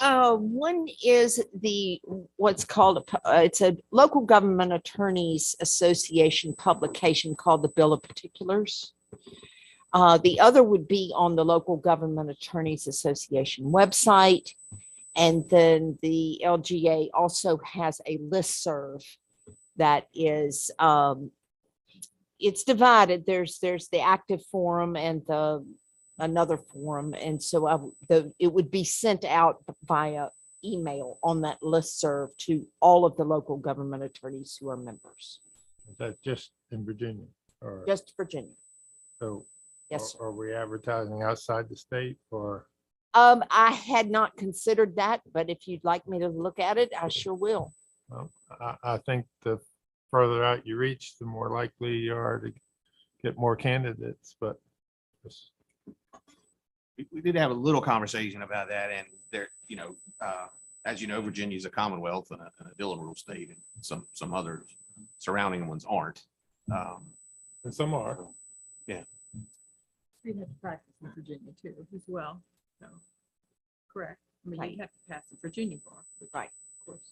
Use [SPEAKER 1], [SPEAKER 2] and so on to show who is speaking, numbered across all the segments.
[SPEAKER 1] Uh, one is the, what's called, a pu- uh, it's a local government attorneys association publication called the Bill of Particulars. Uh, the other would be on the local government attorneys association website. And then the LGA also has a listserv that is, um, it's divided. There's, there's the active forum and the another forum, and so I, w- the, it would be sent out via email on that listserv to all of the local government attorneys who are members,
[SPEAKER 2] Is that just in Virginia? Or,
[SPEAKER 1] just Virginia.
[SPEAKER 2] so,
[SPEAKER 1] Yes, sir.
[SPEAKER 2] are- are we advertising outside the state or?
[SPEAKER 1] um, I had not considered that, but if you'd like me to look at it, I sure will.
[SPEAKER 2] well, I, I think the further out you reach, the more likely you are to get more candidates, but it's-
[SPEAKER 3] we, we did have a little conversation about that and there, you know, uh, as you know, Virginia's a commonwealth and a, and a Dillon rule state and some, some other surrounding ones aren't. Um,
[SPEAKER 2] and some are.
[SPEAKER 4] You'd have to practice in Virginia too as well, so, correct? I mean,
[SPEAKER 1] Right.
[SPEAKER 4] you'd have to pass the Virginia bar. which,
[SPEAKER 1] Right.
[SPEAKER 4] Of course.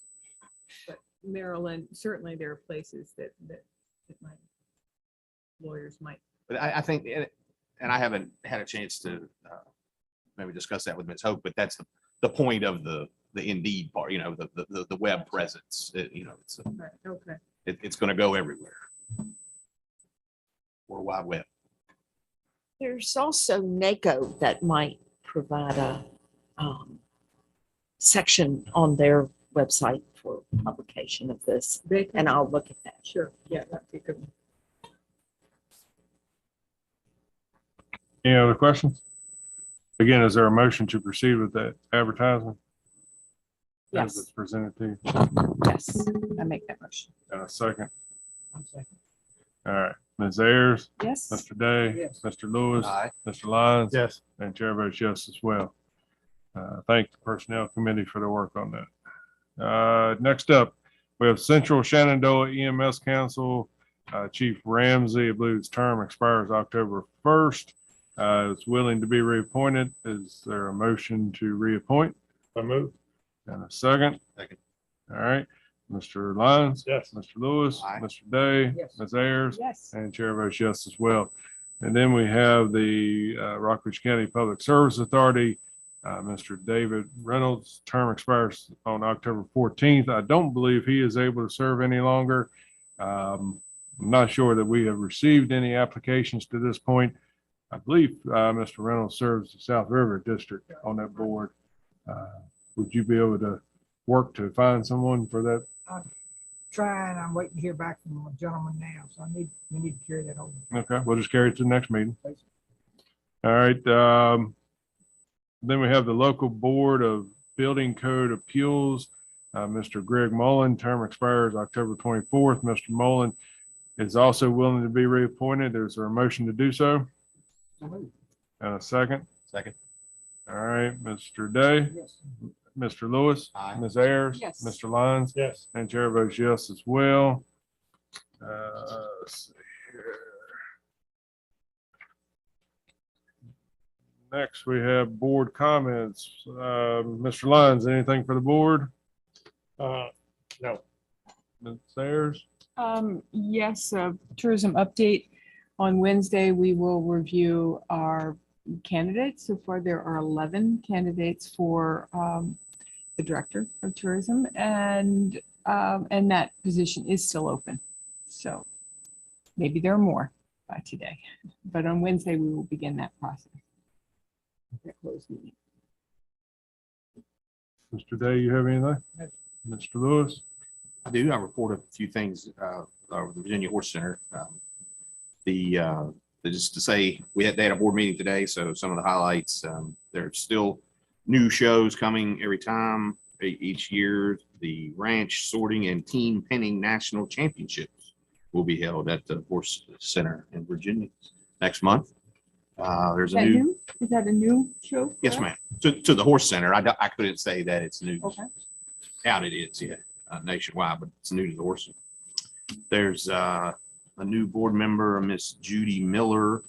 [SPEAKER 4] But Maryland, certainly there are places that, that, that might, lawyers might.
[SPEAKER 3] But I, I think, and and I haven't had a chance to uh, maybe discuss that with Ms. Hope, but that's the, the point of the, the Indeed part, you know, the, the- the, the web presence, It- you know, it's,
[SPEAKER 4] Right, okay.
[SPEAKER 3] it, it's going to go everywhere. World Wide Web.
[SPEAKER 1] There's also NACO that might provide a, um, section on their website for publication of this,
[SPEAKER 4] They can,
[SPEAKER 1] and I'll look at that.
[SPEAKER 4] sure, yeah, that'd be good.
[SPEAKER 2] Any other questions? Again, is there a motion to proceed with that advertising?
[SPEAKER 1] Yes. it's
[SPEAKER 2] Presented to you.
[SPEAKER 1] Yes, I make that motion.
[SPEAKER 2] And a second. All right, Ms. Ayers,
[SPEAKER 1] Yes.
[SPEAKER 5] Mr. Day,
[SPEAKER 2] Yes.
[SPEAKER 5] Mr. Lewis,
[SPEAKER 3] Aye.
[SPEAKER 5] Mr. Lyons,
[SPEAKER 2] Yes.
[SPEAKER 5] and Chair votes yes as well. Uh, Thank the Personnel Committee for their work on that. Uh, Next up, we have Central Shenandoah EMS Council, uh, Chief Ramsey, I believe his term expires October 1st. uh, Is willing to be reappointed. Is there a motion to reappoint?
[SPEAKER 2] I move.
[SPEAKER 5] And a second?
[SPEAKER 3] Second.
[SPEAKER 5] All right, Mr. Lyons,
[SPEAKER 2] Yes.
[SPEAKER 5] Mr. Lewis,
[SPEAKER 3] Aye.
[SPEAKER 5] Mr. Day,
[SPEAKER 4] Yes.
[SPEAKER 5] Ms. Ayers,
[SPEAKER 4] Yes.
[SPEAKER 5] and Chair votes yes as well. And then we have the uh, Rockridge County Public Service Authority. Uh, Mr. David Reynolds' term expires on October fourteenth. I don't believe he is able to serve any longer. Um, I'm not sure that we have received any applications to this point. I believe uh, Mr. Reynolds serves the South River District on that board. Uh, Would you be able to work to find someone for that?
[SPEAKER 6] trying, I'm waiting to hear back from a gentleman now, so I need, we need to carry that over.
[SPEAKER 5] Okay, we'll just carry it to the next meeting. All right, um, then we have the local board of building code appeals. Uh, Mr. Greg Mullen, term expires October twenty-fourth. Mr. Mullen is also willing to be reappointed. There's a motion to do so. And a second.
[SPEAKER 3] Second.
[SPEAKER 5] All right, Mr. Day,
[SPEAKER 6] Yes.
[SPEAKER 5] Mr. Lewis,
[SPEAKER 3] Aye.
[SPEAKER 5] Ms. Ayers.
[SPEAKER 4] Yes.
[SPEAKER 5] Mr. Lyons.
[SPEAKER 2] Yes.
[SPEAKER 5] And chair votes yes as well. Uh, let's see here. Next, we have board comments. Uh, Mr. Lyons, anything for the board?
[SPEAKER 2] Uh, no.
[SPEAKER 5] Ms. Sayers?
[SPEAKER 7] Um, yes, a tourism update. On Wednesday, we will review our candidates. So far, there are eleven candidates for um, the director of tourism and um, and that position is still open. So maybe there are more by today, but on Wednesday, we will begin that process. That closed meeting.
[SPEAKER 5] Mr. Day, you have anything? Mr. Lewis?
[SPEAKER 3] I do. I report a few things uh, over the Virginia Horse Center. Um, The, uh, just to say, we had, they had a board meeting today, so some of the highlights, um, there's still new shows coming every time, e- each year. The Ranch Sorting and Team Penning National Championships will be held at the Horse Center in Virginia next month. Uh, There's
[SPEAKER 7] Is
[SPEAKER 3] a
[SPEAKER 7] that
[SPEAKER 3] new,
[SPEAKER 7] new? Is that a new show? for
[SPEAKER 3] yes,
[SPEAKER 7] us?
[SPEAKER 3] ma'am, to, to the Horse Center. I, don't- I couldn't say that it's new
[SPEAKER 7] Okay.
[SPEAKER 3] out it is, yeah, uh, nationwide, but it's new to the Orson. There's uh, a new board member, Miss Judy Miller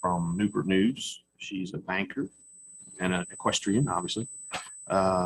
[SPEAKER 3] from Newport News. She's a banker and an equestrian, obviously. Uh,